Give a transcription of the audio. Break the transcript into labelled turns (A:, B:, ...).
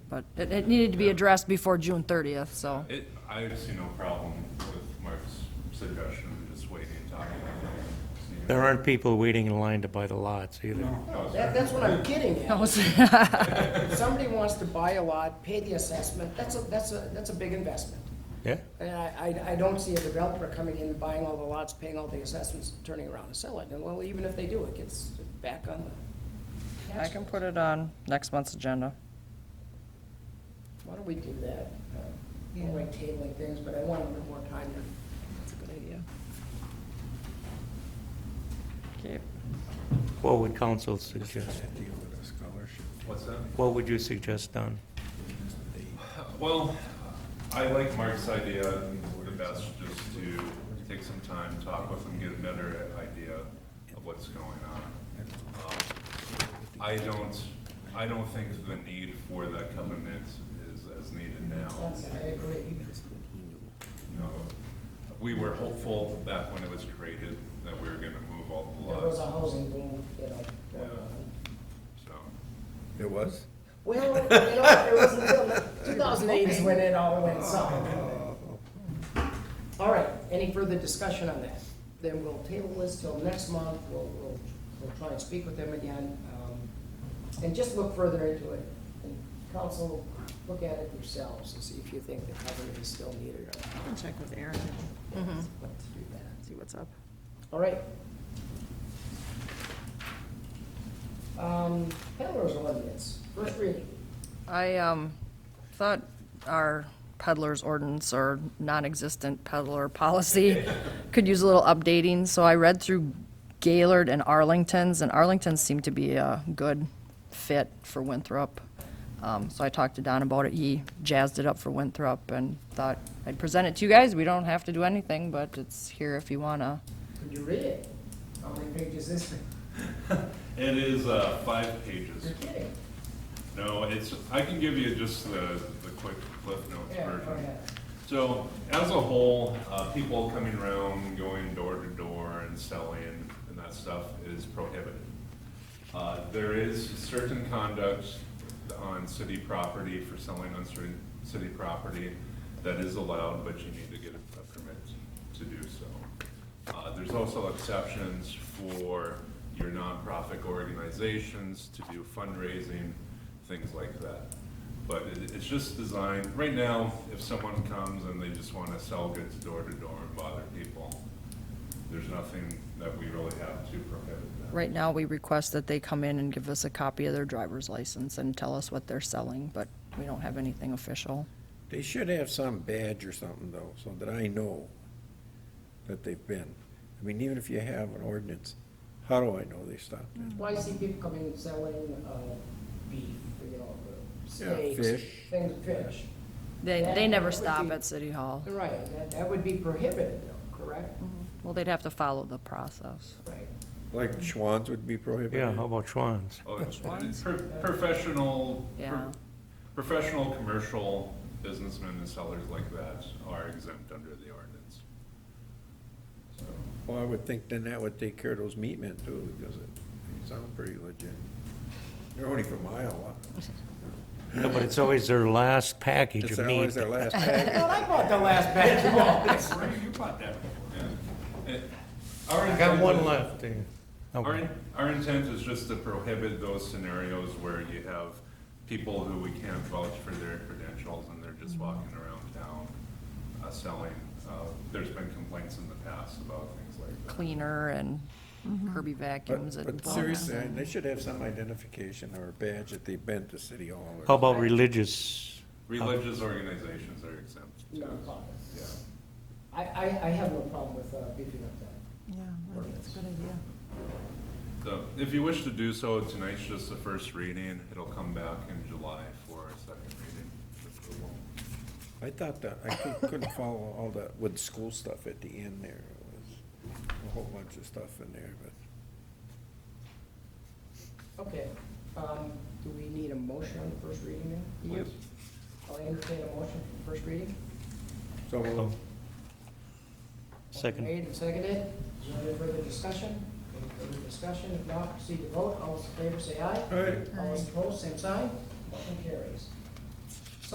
A: But it, it needed to be addressed before June thirtieth, so.
B: It, I see no problem with Mark's suggestion, of just waiting and talking about it. See.
C: There aren't people waiting in line to buy the lots either.
D: That, that's what I'm getting
A: that
D: at.
A: was-
D: If somebody wants to buy a lot, pay the assessment, that's a, that's a, that's a big investment.
C: Yeah?
D: And I, I, I don't see a developer coming in, buying all the lots, paying all the assessments, turning around and selling it. And well, even if they do, it gets back on the
A: I
D: tax.
A: can put it on next month's agenda.
D: Why don't we do that? Uh, I don't like tabling things, but I want a little more time to, that's a good idea.
A: Okay.
C: What would council suggest?
B: What's that?
C: What would you suggest, Don?
B: Well, I like Mark's idea the best, just to take some time, talk with him, get a better idea of what's going on. Um, I don't, I don't think the need for that covenant is as needed now.
D: I agree.
B: You know, We were hopeful back when it was created that we were gonna move all the
D: There was a
B: lots,
D: housing boom, you know. going on.
B: so.
E: It was?
D: Well, you know, it was until two thousand eight is when it all went south. All right, any further discussion on that? Then we'll table this till next month, we'll, we'll, we'll try and speak with them again, um, and just look further into it. And Council, look at it yourselves and see if you think the covenant is still needed or not.
F: Can check with Aaron Mm-hmm. and
D: Let's do that.
F: see what's up.
D: All right. Um, peddler's ordinance, first reading.
A: I um, thought our peddler's ordinance or non-existent peddler policy could use a little updating, so I read through Gaylord and Arlington's, and Arlington's seemed to be a good fit for Winthrop. Um, So I talked to Don about it, he jazzed it up for Winthrop and thought I'd present it to you guys, we don't have to do anything, but it's here if you wanna.
D: Could you read it? How many pages is this thing?
B: It is, uh, five pages.
D: You're kidding.
B: No, it's, I can give you just the, the quick Cliff Notes
D: Yeah, go
B: version.
D: ahead.
B: So, as a whole, uh, people coming around, going door to door and selling and that stuff is prohibited. Uh, there is certain conduct on city property for selling on certain city property that is allowed, but you need to get a permit to do so. Uh, there's also exceptions for your nonprofit organizations to do fundraising, things like that. But it, it's just designed, right now, if someone comes and they just wanna sell goods door to door and bother people, there's nothing that we really have to prohibit that.
A: Right now, we request that they come in and give us a copy of their driver's license and tell us what they're selling, but we don't have anything official.
E: They should have some badge or something though, so that I know that they've been. I mean, even if you have an ordinance, how do I know they stopped it?
D: Well, I see people coming and selling, uh, beef, you know, the
E: Yeah,
D: steaks.
E: fish.
D: Things, fish.
A: They, they never stop at City Hall.
D: Right, that, that would be prohibited though, correct?
A: Well, they'd have to follow the process.
D: Right.
E: Like Schwans would be prohibited?
C: Yeah, how about Schwans?
B: Oh, it's- it's pro- Professional, pro-
A: Yeah.
B: professional, commercial businessmen and sellers like that are exempt under the ordinance. So,
E: Well, I would think then that would take care of those meat men too, because it, they sound pretty legit. They're only from Iowa.
C: No, but it's always their last package
E: It's
C: of
E: always
C: meat.
E: their last package.
D: Well, I bought the last batch of all this.
B: Ray, you bought that before. Yeah. It- our
C: I got
B: intent
C: one
B: was-
C: left. eh? No,
B: Our, in- our intent is just to prohibit those scenarios where you have people who we can't vouch for their credentials and they're just walking around town uh, selling. Uh, There's been complaints in the past about things like that.
A: Cleaner and Kirby vacuums
E: But,
A: and.
E: but seriously, they should have some identification or badge that they've been to City Hall or.
C: How about religious?
B: Religious organizations are exempt. too.
D: No.
B: Yeah.
D: I, I, I have no problem with, uh, beefing up that.
F: Yeah, I think it's a good idea.
B: So if you wish to do so, tonight's just the first reading. It'll come back in July for a second reading. approval.
E: I thought that, I cou- couldn't follow all that with school stuff at the end there. It was A whole bunch of stuff in there, but
D: Okay, um, do we need a motion on the first reading then?
B: Please.
D: I'll entertain a motion for first reading.
E: so we'll
C: Second.
D: Made and seconded. Is there any further discussion? Any further discussion? If not, proceed to vote. All those in favor say aye.
E: Aye.
D: All those opposed, same sign. Motion carries.